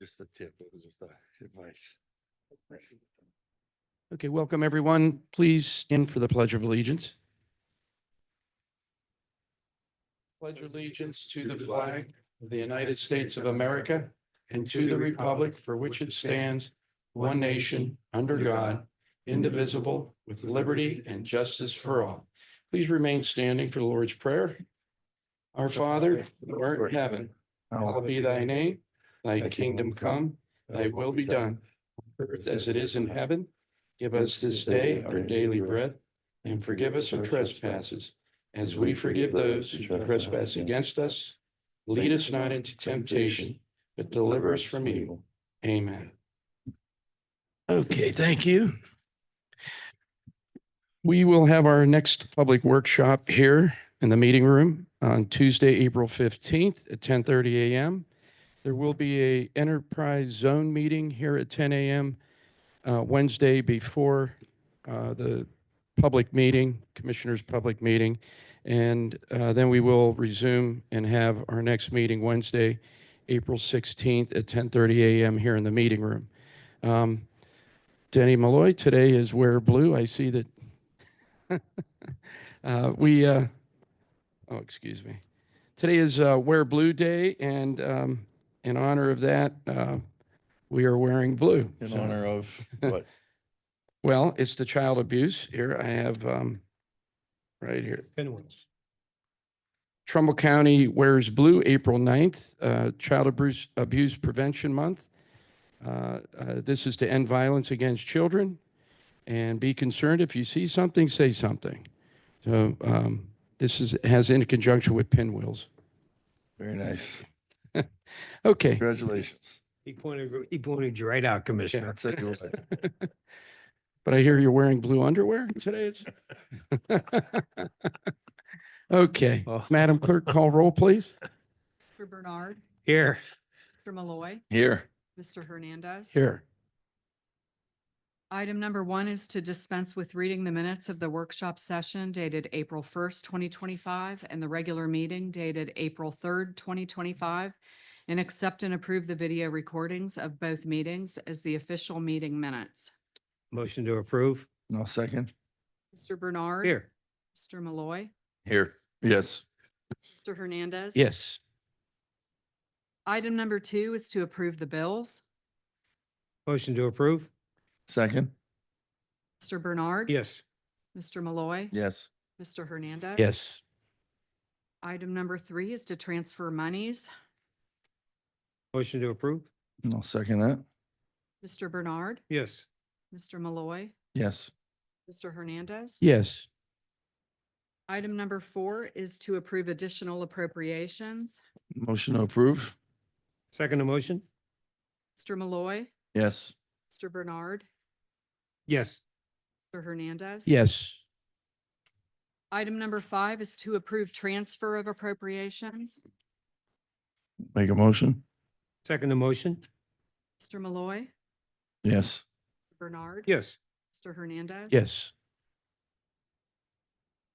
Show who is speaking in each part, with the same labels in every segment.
Speaker 1: Just a tip, it was just a advice.
Speaker 2: Okay, welcome, everyone. Please stand for the Pledge of Allegiance. Pledge allegiance to the flag of the United States of America and to the republic for which it stands, one nation, under God, indivisible, with liberty and justice for all. Please remain standing for the Lord's Prayer. Our Father, who art in heaven, hallowed be thy name. Thy kingdom come, thy will be done, earth as it is in heaven. Give us this day our daily bread, and forgive us our trespasses, as we forgive those who trespass against us. Lead us not into temptation, but deliver us from evil. Amen. Okay, thank you. We will have our next public workshop here in the meeting room on Tuesday, April fifteenth at ten thirty AM. There will be a enterprise zone meeting here at ten AM uh, Wednesday before uh, the public meeting, Commissioners' public meeting. And uh, then we will resume and have our next meeting Wednesday, April 16th at 10:30 a.m. here in the meeting room. Um, Denny Malloy today is wear blue. I see that. Uh, We, uh, oh, excuse me. Today is uh, Wear Blue Day, and um, in honor of that, uh, we are wearing blue.
Speaker 1: In
Speaker 2: So-
Speaker 1: honor of what?
Speaker 2: well, it's the child abuse. Here I have, um, right here. Trumbull County wears blue, April 9th, uh, Child Abuse, Abuse Prevention Month. Uh, uh, this is to end violence against children. And be concerned, if you see something, say something. So, um, this is, has in conjunction with pinwheels.
Speaker 1: Very nice.
Speaker 2: Okay.
Speaker 1: Congratulations.
Speaker 3: He pointed, he pointed you right out, Commissioner.
Speaker 1: That's it. you're right.
Speaker 2: But I hear you're wearing blue underwear today. it's- Okay,
Speaker 3: Oh.
Speaker 2: Madam Clerk, call roll, please.
Speaker 4: Mr. Bernard,
Speaker 3: Here,
Speaker 4: Mr. Malloy,
Speaker 1: Here,
Speaker 4: Mr. Hernandez.
Speaker 2: Here.
Speaker 4: Item number one is to dispense with reading the minutes of the workshop session dated April first, twenty twenty-five, and the regular meeting dated April third, twenty twenty-five, and accept and approve the video recordings of both meetings as the official meeting minutes.
Speaker 3: motion to approve.
Speaker 1: no second.
Speaker 4: Mr. Bernard.
Speaker 3: Here,
Speaker 4: Mr. Malloy,
Speaker 1: Here, yes.
Speaker 4: Mr. Hernandez.
Speaker 2: Yes.
Speaker 4: Item number two is to approve the bills.
Speaker 3: motion to approve.
Speaker 1: Second,
Speaker 4: Mr. Bernard.
Speaker 3: Yes,
Speaker 4: Mr. Malloy.
Speaker 1: yes.
Speaker 4: Mr. Hernandez.
Speaker 2: Yes.
Speaker 4: Item number three is to transfer monies.
Speaker 3: motion to approve.
Speaker 1: No second that.
Speaker 4: Mr. Bernard,
Speaker 3: Yes,
Speaker 4: Mr. Malloy,
Speaker 1: Yes,
Speaker 4: Mr. Hernandez.
Speaker 2: Yes.
Speaker 4: Item number four is to approve additional appropriations.
Speaker 1: motion to approve.
Speaker 3: second motion.
Speaker 4: Mr. Malloy,
Speaker 1: Yes,
Speaker 4: Mr. Bernard,
Speaker 3: Yes,
Speaker 4: Mr. Hernandez.
Speaker 2: Yes.
Speaker 4: Item number five is to approve transfer of appropriations.
Speaker 1: make a motion.
Speaker 3: second motion.
Speaker 4: Mr. Malloy,
Speaker 1: Yes,
Speaker 4: Bernard.
Speaker 3: Yes,
Speaker 4: Mr. Hernandez.
Speaker 2: Yes.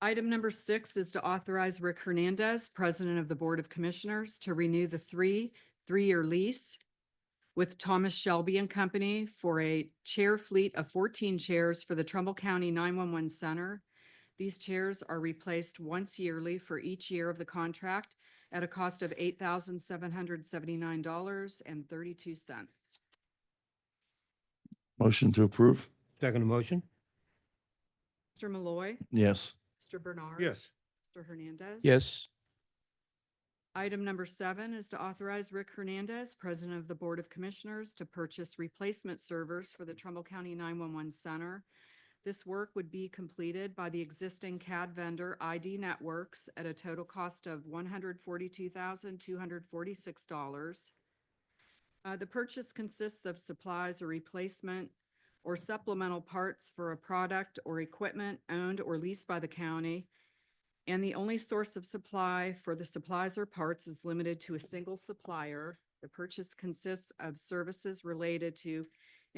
Speaker 4: Item number six is to authorize Rick Hernandez, President of the Board of Commissioners, to renew the three, three-year lease with Thomas Shelby and Company for a chair fleet of fourteen chairs for the Trumbull County nine-one-one center. These chairs are replaced once yearly for each year of the contract at a cost of eight thousand seven hundred seventy-nine dollars and thirty-two cents.
Speaker 1: motion to approve.
Speaker 3: second motion.
Speaker 4: Mr. Malloy,
Speaker 1: Yes,
Speaker 4: Mr. Bernard.
Speaker 3: Yes,
Speaker 4: Mr. Hernandez.
Speaker 2: Yes.
Speaker 4: Item number seven is to authorize Rick Hernandez, President of the Board of Commissioners, to purchase replacement servers for the Trumbull County 911 Center. This work would be completed by the existing CAD vendor ID Networks at a total cost of $142,246. Uh, The purchase consists of supplies or replacement or supplemental parts for a product or equipment owned or leased by the county and the only source of supply for the supplies or parts is limited to a single supplier. The purchase consists of services related to